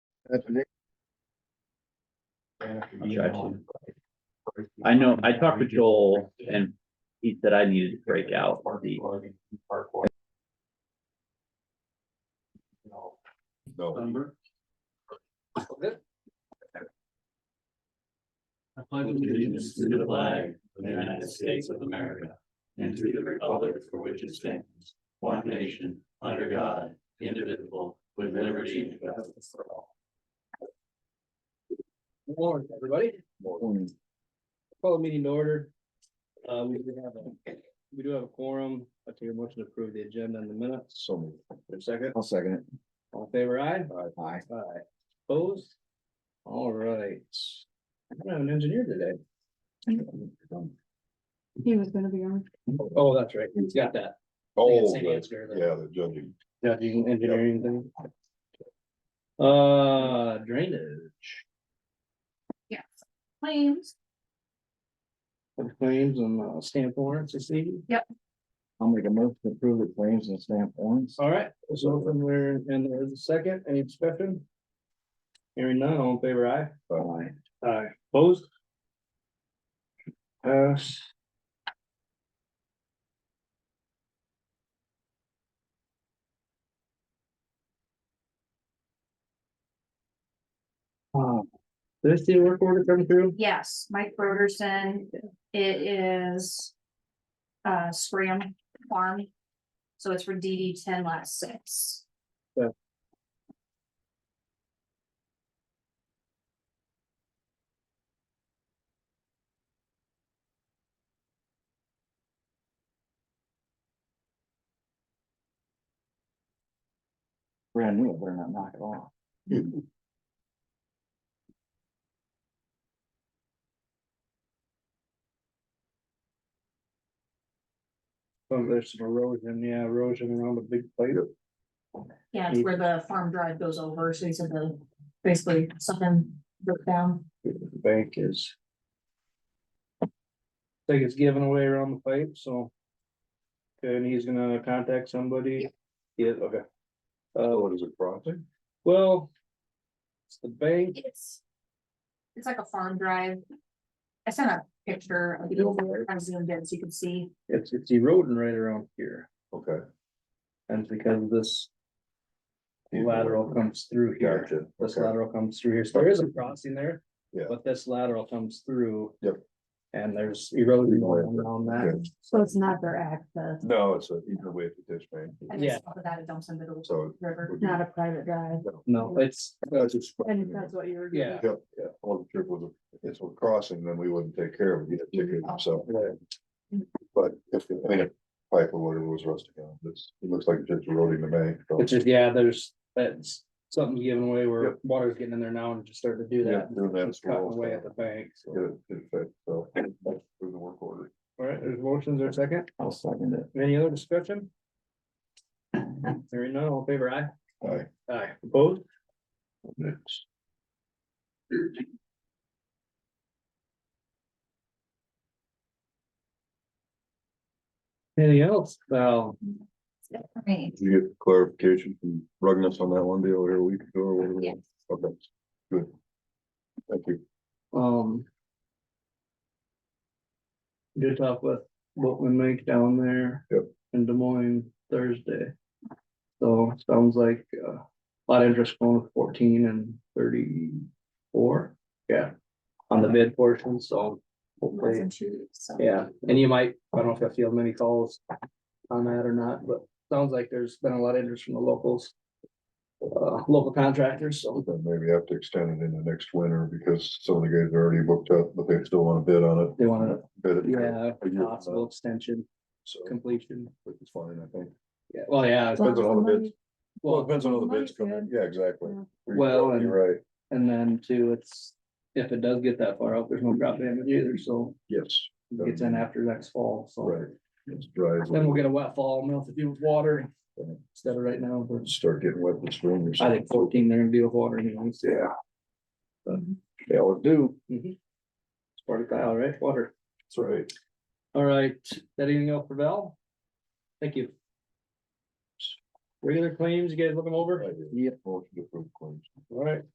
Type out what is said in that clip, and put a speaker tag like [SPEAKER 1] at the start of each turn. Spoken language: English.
[SPEAKER 1] That's an
[SPEAKER 2] I'll try to. I know, I talked to Joel and he said I needed to break out the,
[SPEAKER 3] No.
[SPEAKER 4] I pledge allegiance to the flag of the United States of America and to the republic for which it stands, one nation, under God, indivisible, with liberty and justice for all.
[SPEAKER 5] Good morning, everybody. Call the meeting to order. Uh, we do have a, we do have a quorum. I take a motion to approve the agenda in the minutes.
[SPEAKER 1] So moved.
[SPEAKER 5] For a second,
[SPEAKER 3] Oh,
[SPEAKER 1] I'll second
[SPEAKER 5] all in favor aye.
[SPEAKER 1] it. Aye.
[SPEAKER 5] Aye. Opposed? All right. I don't have an engineer today.
[SPEAKER 6] He was gonna be on.
[SPEAKER 5] Oh, that's right. He's got that.
[SPEAKER 3] Oh,
[SPEAKER 5] Same
[SPEAKER 3] that's-
[SPEAKER 5] answer, though.
[SPEAKER 3] yeah, the judging.
[SPEAKER 5] Judging engineering thing. Uh, drainage,
[SPEAKER 6] Yes. Claims.
[SPEAKER 5] claims and uh, stamp warrants this evening.
[SPEAKER 1] I'll make a motion to approve the claims and stamp warrants.
[SPEAKER 5] All right, so open where, and there's a second, any discussion? Hearing none, all in favor, aye?
[SPEAKER 1] Aye.
[SPEAKER 5] Aye. Opposed? Pass. Uh, Did I see a work order come through?
[SPEAKER 6] Yes, Mike Broderson, it is. Uh, Scram Farm. So it's for DD ten last six.
[SPEAKER 1] Brand new, better not knock it off.
[SPEAKER 5] Oh, there's some erosion, yeah, erosion around the big plate.
[SPEAKER 6] Yeah, it's where the farm drive goes over, so he said the, basically something broke down.
[SPEAKER 5] the bank is. I Think it's given away around the pipe, so. okay, And he's gonna contact somebody. Yeah, okay.
[SPEAKER 3] Oh,
[SPEAKER 5] Uh,
[SPEAKER 3] what is it, crossing?
[SPEAKER 5] well. It's the bank,
[SPEAKER 6] It's. It's like a farm drive. I sent a picture of the over, I zoomed in so you can see.
[SPEAKER 5] it's, it's eroding right around here,
[SPEAKER 3] Okay.
[SPEAKER 5] and because this lateral comes through here.
[SPEAKER 3] Gotcha.
[SPEAKER 5] This
[SPEAKER 3] Okay.
[SPEAKER 5] lateral comes through here, so there is a crossing there.
[SPEAKER 3] Yeah.
[SPEAKER 5] But this lateral comes through.
[SPEAKER 3] Yep.
[SPEAKER 5] And there's erosion going around
[SPEAKER 3] Good.
[SPEAKER 5] that,
[SPEAKER 6] So it's not their access,
[SPEAKER 3] No, it's a either way petition,
[SPEAKER 6] I
[SPEAKER 5] Yeah.
[SPEAKER 6] just thought that it dumps into the
[SPEAKER 3] so.
[SPEAKER 6] river.
[SPEAKER 3] Not
[SPEAKER 6] a private drive.
[SPEAKER 5] no, it's,
[SPEAKER 3] That's just.
[SPEAKER 6] what you were.
[SPEAKER 5] yeah.
[SPEAKER 3] Yep, yeah, well, if it was, a- if it was crossing, then we wouldn't take care of it, you'd ticket himself.
[SPEAKER 5] Right.
[SPEAKER 3] But if, I mean, if pipe or whatever was rusting out, this, it looks like it's just eroding to me.
[SPEAKER 5] It's just, yeah, there's, that's something given away where
[SPEAKER 3] Yep.
[SPEAKER 5] water's getting in there now and it just starting to do that.
[SPEAKER 3] Yeah, doing that
[SPEAKER 5] It's Cutting
[SPEAKER 3] slow,
[SPEAKER 5] away
[SPEAKER 3] so.
[SPEAKER 5] at the bank,
[SPEAKER 3] Get
[SPEAKER 5] so.
[SPEAKER 3] it, get it fixed, so, that's the work order.
[SPEAKER 5] Alright, there's motions or second,
[SPEAKER 1] I'll second it.
[SPEAKER 5] any other discussion? Hearing none, all in favor aye.
[SPEAKER 3] Aye.
[SPEAKER 5] Aye, opposed,
[SPEAKER 3] Next.
[SPEAKER 5] anything else, well,
[SPEAKER 6] Right,
[SPEAKER 3] Did you get clarification from Rugness on that one deal over here a week ago or whatever?
[SPEAKER 6] yes.
[SPEAKER 3] Okay, good. Thank you.
[SPEAKER 5] um. Did talk with what we make down there.
[SPEAKER 3] Yep.
[SPEAKER 5] In Des Moines Thursday. So it sounds like uh, a lot of interest going with fourteen and thirty-four, yeah. On the bid portion, so hopefully,
[SPEAKER 6] Wasn't you, so.
[SPEAKER 5] yeah, and you might, I don't know if I feel many calls. On that or not, but sounds like there's been a lot of interest from the locals. Uh, local contractors, so.
[SPEAKER 3] Then maybe have to extend it into next winter because some of the guys are already booked up, but they still want to bid on it.
[SPEAKER 5] They wanna-
[SPEAKER 3] Bid it.
[SPEAKER 5] Yeah,
[SPEAKER 3] A year from
[SPEAKER 5] possible extension,
[SPEAKER 3] So,
[SPEAKER 5] completion.
[SPEAKER 3] which is fine, I think.
[SPEAKER 5] Yeah, well, yeah,
[SPEAKER 3] Depends on all the bids. Well, it
[SPEAKER 5] well,
[SPEAKER 3] depends on all the
[SPEAKER 6] Might
[SPEAKER 3] bids coming. in.
[SPEAKER 6] bid.
[SPEAKER 3] Yeah, exactly.
[SPEAKER 6] Yeah.
[SPEAKER 3] You're
[SPEAKER 5] Well, and-
[SPEAKER 3] Right,
[SPEAKER 5] and then too, it's, if it does get that far out, there's no crop damage either, so
[SPEAKER 3] yes,
[SPEAKER 5] it gets in after next fall, so.
[SPEAKER 3] right. It's dry.
[SPEAKER 5] Then we'll get a wet fall, melt the deal with water instead of right now, but
[SPEAKER 3] Start getting wet this spring or
[SPEAKER 5] I
[SPEAKER 3] something.
[SPEAKER 5] think fourteen, they're gonna deal with water anyways.
[SPEAKER 3] Yeah. They always do.
[SPEAKER 5] It's part of Kyle, right? Water.
[SPEAKER 3] That's right.
[SPEAKER 5] All right, is that anything else for Val? Thank you. Regular claims, you guys look them over?
[SPEAKER 3] Yep. Motion to approve claims.
[SPEAKER 5] All right,